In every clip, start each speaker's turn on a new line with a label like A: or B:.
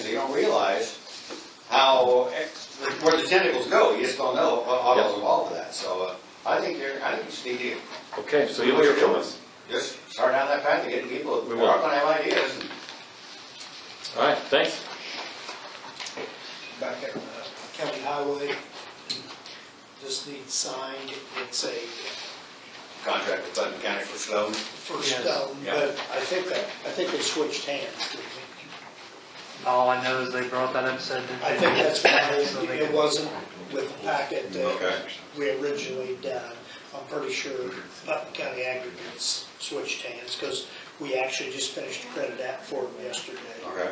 A: don't realize how, where the tentacles go, you just don't know what all goes involved with that, so, uh, I think you're, I think you just need to
B: Okay, so you'll hear from us.
A: just start down that path of getting people,
B: We
A: they're
B: will.
A: not gonna have ideas, and
B: All right, thanks.
C: back at uh, County Highway. Just need signed, it's a
A: contract with Putnam County for Sloan.
C: first
D: Yeah.
C: stone,
A: Yeah.
C: but I think that, I think they switched hands. didn't they?
D: All I know is they brought that up, said that.
C: I think that's why it wasn't with the packet that
A: Okay.
C: we originally done. I'm pretty sure Putnam County Aggregates switched hands, because we actually just finished a credit app for them yesterday,
A: Okay.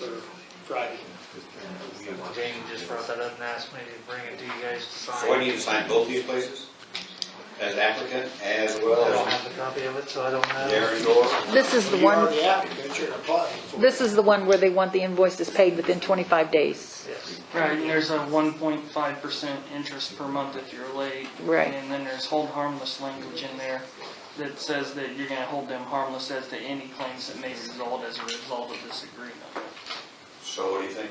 C: or Friday.
D: Jamie just brought that up and asked me to bring it to you guys to sign.
A: So what do you sign both these places? As applicant, as
D: I don't
A: well as
D: have the copy of it, so I don't know.
A: Darren Door?
E: This is the
C: You are
E: one,
C: the applicant, you're applying for.
E: this is the one where they want the invoices paid within 25 days.
D: Yes.
F: Right, and there's a one point five percent interest per month if you're late.
E: Right.
F: And then there's hold harmless language in there that says that you're gonna hold them harmless as to any claims that may result as a result of this agreement.
A: So what do you think?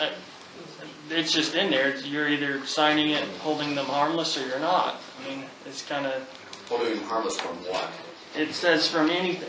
F: Uh, It's just in there, you're either signing it, holding them harmless, or you're not. I mean, it's kinda,
A: Holding them harmless from what?
F: it says from any,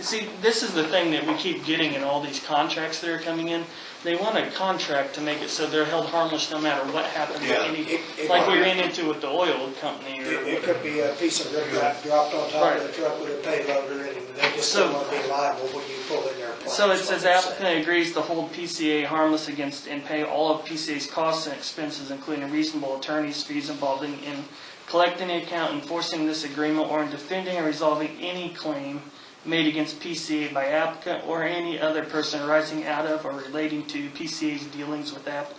F: see, this is the thing that we keep getting in all these contracts that are coming in. They want a contract to make it so they're held harmless no matter what happens. to
A: Yeah.
F: any-
C: It- it-
F: Like we ran into with the oil company or
C: It it could be a piece of riprap dropped on top of the truck with a payloader in it, and they just don't
F: So-
C: want to be liable when you pull in their plates.
F: So it says
C: like you said.
F: applicant agrees to hold PCA harmless against and pay all of PCA's costs and expenses, including reasonable attorney's fees involved in, in collecting the account, enforcing this agreement, or in defending and resolving any claim made against PCA by applicant or any other person arising out of or relating to PCA's dealings with applicant.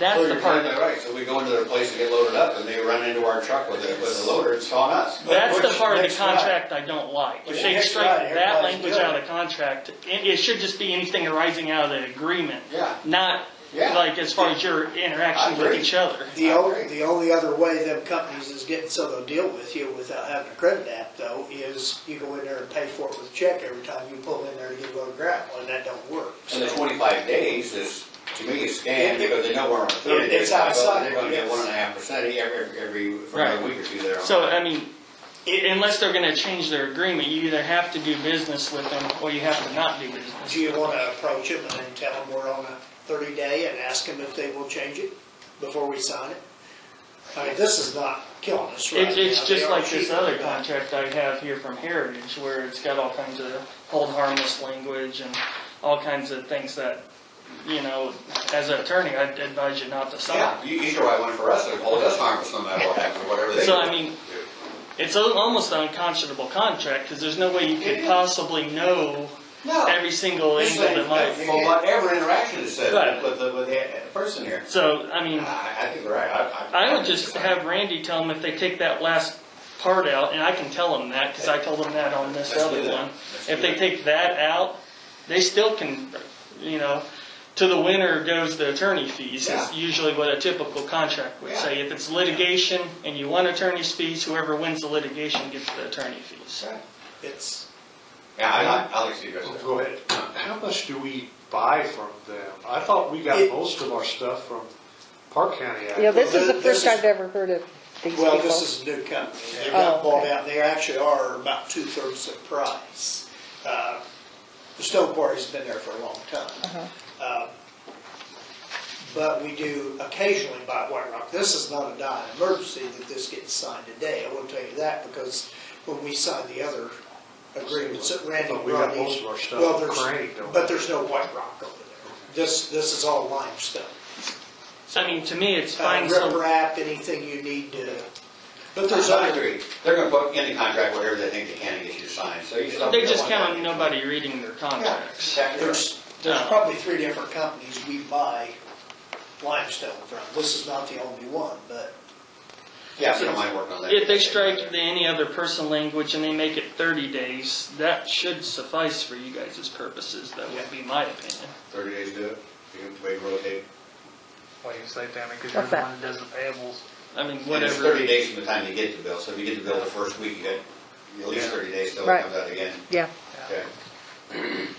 F: That's the
A: Oh, You're
F: part,
A: exactly Right, so we go into their place and get loaded up, and they run into our truck with a, with a loader, it's on us.
F: that's the
C: Which
F: part of
C: makes
F: the
C: right.
F: contract I don't like. If
C: Which
F: they
C: makes
F: strike
C: right,
F: that
C: everybody's
F: language
C: good.
F: out of the contract, it, it should just be anything arising out of the agreement.
A: Yeah.
F: Not
A: Yeah.
F: like as far as your
A: I
F: interaction with
A: agree.
F: each other.
C: The only, the only other way them companies is getting so they'll deal with you without having a credit app though, is you go in there and pay for it with a check every time you pull in there to get a load of gravel, and that don't work.
A: And
C: So
A: the twenty-five days is, to me, is scanned, because they know we're on thirty
C: It's
A: days. so
C: outside,
A: They're gonna
C: yes.
A: get one and a half percent e-, every, every, for
F: Right.
A: a week or two there.
F: So, I mean, i- unless they're gonna change their agreement, you either have to do business with them or you have to not do business.
C: Do you want to approach them and then tell them we're on a thirty day and ask them if they will change it before we sign it? I mean, this is not killing us right now.
F: It, it's
C: They
F: just
C: are
F: like this
C: cheating
F: other
C: us.
F: contract I have here from Heritage where it's got all kinds of hold harmless language and all kinds of things that, you know, as an attorney, I'd advise you not to sign.
A: Yeah, you, you should write one for us, and hold us harmless no matter what happens, whatever they do.
F: So, I mean, it's al- almost an unconscionable contract because there's no way you could possibly know
A: No.
F: every single
A: Oh. This
F: angle that
A: thing,
F: might.
A: for whatever interaction is said
F: Right.
A: with the, with the person here,
F: So, I mean.
A: I, I think you're right, I, I.
F: I would just have Randy tell them if they take that last part out, and I can tell them that, because I told them that on this
A: Let's do
F: other
A: that.
F: one.
A: Let's
F: If
A: do
F: they
A: that.
F: take that out, they still can, you know, to the winner goes the attorney fees,
A: Yeah.
F: is usually what a typical contract would
A: Yeah.
F: say. If it's litigation and you want attorney's fees, whoever wins the litigation gets the attorney fees.
C: It's,
A: Yeah, I, I- I like to see you guys. do it.
G: Oh, Go ahead. How much do we buy from them? I thought we got
C: It-
G: most of our stuff from Park County. Ag.
E: Yeah, this is the
C: Well,
E: first
C: this-
E: I've ever heard of these
C: well, this
E: people.
C: is a new company. They
E: Oh,
C: got bought
E: okay.
C: out. They actually are about two-thirds the price. Uh, The Stone Quarry's been there for a long
E: Uh-huh.
C: time. Uh, But we do occasionally buy White Rock. This is not a dire emergency that this gets signed today. I will tell you that because when we signed the other agreements that Randy
G: But we got
C: brought in-
G: most of our stuff
C: well, there's-
G: Crane, don't we?
C: But there's no White Rock over there. This, this is all limestone.
F: So, I mean, to me, it's
C: Uh,
F: fine,
C: rip
F: so,
C: wrap, anything you need to, but there's
A: There's other
C: other,
A: three, they're gonna put in the contract whatever they think they can and get you to sign, so you just.
F: they just count on nobody reading their contracts.
C: there's, there's
F: No.
C: probably three different companies we buy limestone from. This is not the only one, but
A: Yeah, if you don't mind working on that.
F: If they strike the any other person language and they make it 30 days, that should suffice for you guys' purposes, that would be my opinion.
A: Thirty days to do it, you can wait, and rotate.
D: Why you say that, because you're
E: What's
D: the
E: that?
D: one that does the payables.
F: I mean,
A: And it's
F: whatever,
A: thirty days from the time you get the bill, so if you get the bill the first week, you get, at least
D: Yeah.
A: thirty days till it
E: Right.
A: comes out again.
E: Yeah,
A: Okay.